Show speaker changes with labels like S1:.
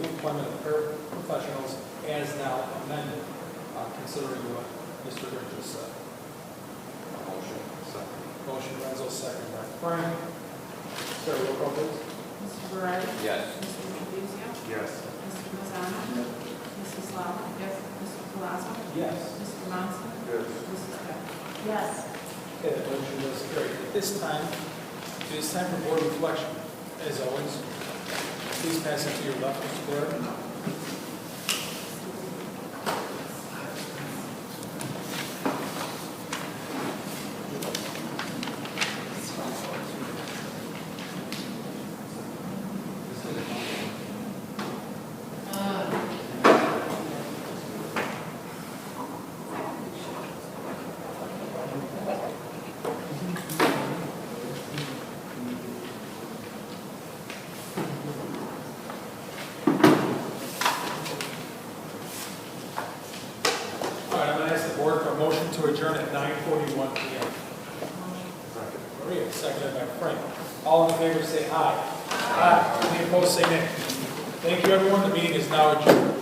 S1: employment of paraprofessionals as now amended, uh, considering what Mr. Green just said.
S2: Motion. Second.
S1: Motion Renzo, second by Frank. Sarah, roll call please.
S3: Mr. Berard.
S2: Yes.
S3: Mr. Trabuzio.
S2: Yes.
S3: Mr. Lozano. Mrs. Lala. Yes. Mr. Palazzo.
S1: Yes.
S3: Mr. Johnson.
S2: Yes.
S3: Mrs. Beck.
S4: Yes.
S1: Okay, that motion is carried. At this time, it is time for board reflection. As always, please pass it to your left, Mr. Blair. All right, I'm going to ask the board for a motion to adjourn at 9:41 PM. Maria, seconded by Frank. All in favor, say aye. Aye. Any opposed, say nay. Thank you, everyone. The meeting is now adjourned.